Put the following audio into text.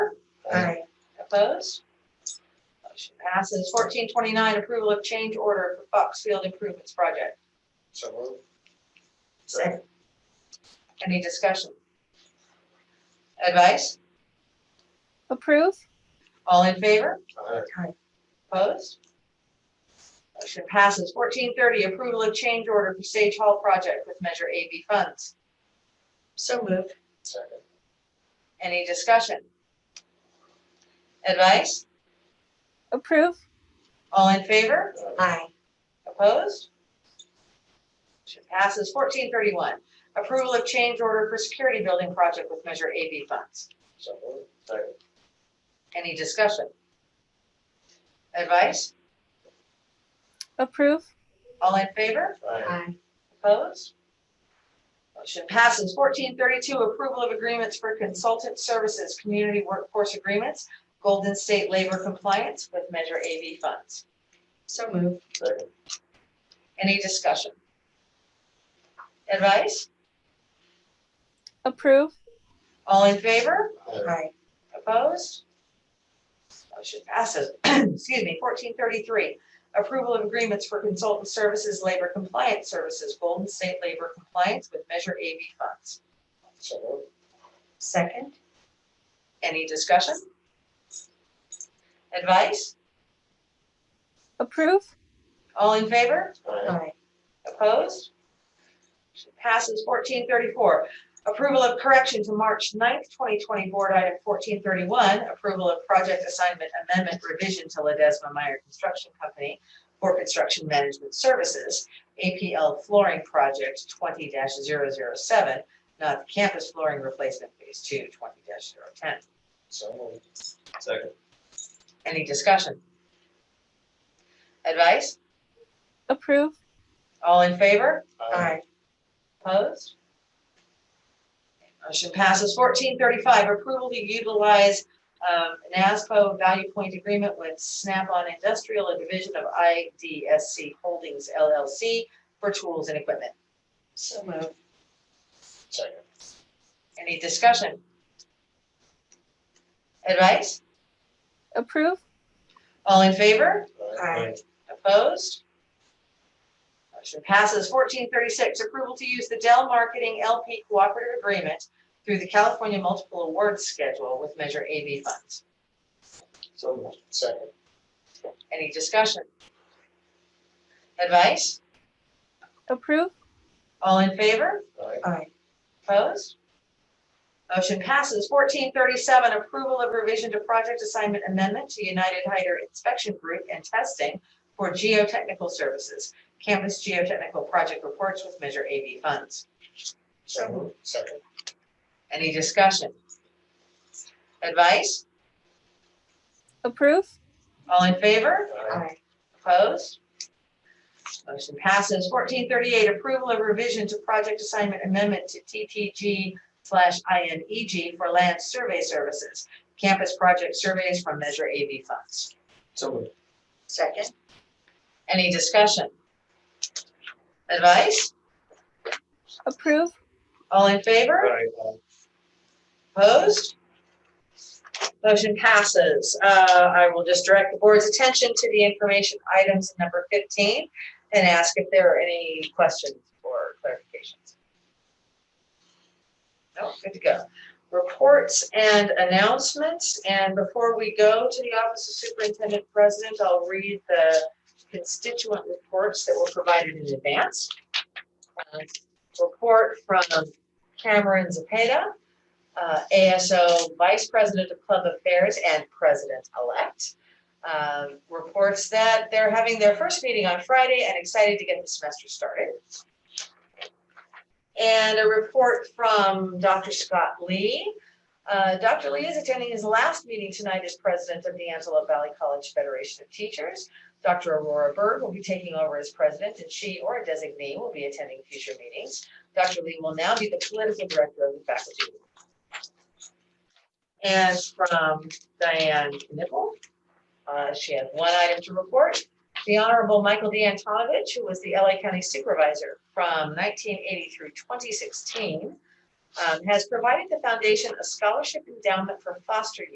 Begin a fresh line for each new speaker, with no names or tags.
Opposed? Motion passes. Fourteen twenty-nine, approval of change order for Fox Field Improvements Project.
So moved.
Second. Any discussion? Advice?
approve,
All in favor?
Aye.
Opposed? Motion passes. Fourteen thirty, approval of change order for Sage Hall project with Measure AB funds. So moved.
Second.
Any discussion? Advice?
approve,
All in favor?
Aye.
Opposed? Motion passes. Fourteen thirty-one, approval of change order for security building project with Measure AB funds.
So moved. Second.
Any discussion? Advice?
approve,
All in favor?
Aye.
Opposed? Motion passes. Fourteen thirty-two, approval of agreements for consultant services, community workforce agreements, Golden State Labor Compliance with Measure AV funds. So moved.
Second.
Any discussion? Advice?
approve,
All in favor?
Aye.
Aye. Opposed? Motion passes. Excuse me. Fourteen thirty-three, approval of agreements for consultant services, labor compliance services, Golden State Labor Compliance with Measure AV funds.
So moved.
Second. Any discussion? Advice?
approve,
All in favor?
Aye.
Opposed? Motion Passes fourteen thirty-four. Approval of correction to March 9th, twenty twenty, board item fourteen thirty-one, approval of project assignment amendment revision to Ledesma Meyer Construction Company for construction management services, APL flooring project twenty 7 not the campus flooring replacement phase two, 20 10
So moved. Second.
Any discussion? Advice?
approve,
All in favor?
Aye.
Opposed? Motion passes. Fourteen thirty-five, approval to utilize um, NASPO Value Point Agreement with Snap-on Industrial, a division of IDSC Holdings LLC for tools and equipment. So moved.
Second.
Any discussion? Advice?
approve,
All in favor?
Aye.
Opposed? Motion passes. Fourteen thirty-six, approval to use the Dell Marketing LP Cooperative Agreement through the California Multiple Awards Schedule with Measure AV funds.
So moved. Second.
Any discussion? Advice?
approve,
All in favor?
Aye.
Opposed? Motion passes. Fourteen thirty-seven, approval of revision to project assignment amendment to United Hyder Inspection Group and Testing for geotechnical services, campus geotechnical project reports with Measure AV funds.
So moved. Second.
Any discussion? Advice?
approve,
All in favor?
Aye.
Opposed? Motion passes. Fourteen thirty-eight, approval of revision to project assignment amendment to TTG slash INEG for land survey services, campus project surveys from Measure AV funds.
So moved.
Second. Any discussion? Advice?
approve,
All in favor?
Aye.
Opposed? Motion passes. Uh, I will just direct the board's attention to the information items in number 15 and ask if there are any questions or clarifications. No, good to go. Reports and announcements. And before we go to the Office of Superintendent President, I'll read the constituent reports that were provided in advance. Uh, Report from Cameron Zapata uh, ASO Vice President of Club Affairs and President-elect, um, reports that they're having their first meeting on Friday and excited to get the semester started. And a report from Dr. Scott Lee. Uh, Dr. Lee is attending his last meeting tonight as president of the Antelope Valley College Federation of Teachers. Dr. Aurora Bird will be taking over as president, and she or a designee will be attending future meetings. Dr. Lee will now be the political director of the faculty and from Diane Nipple. Uh, she had one item to report. The Honorable Michael D. Antonovich, who was the LA County Supervisor from nineteen eighty through twenty sixteen, um, has provided the foundation a scholarship endowment for foster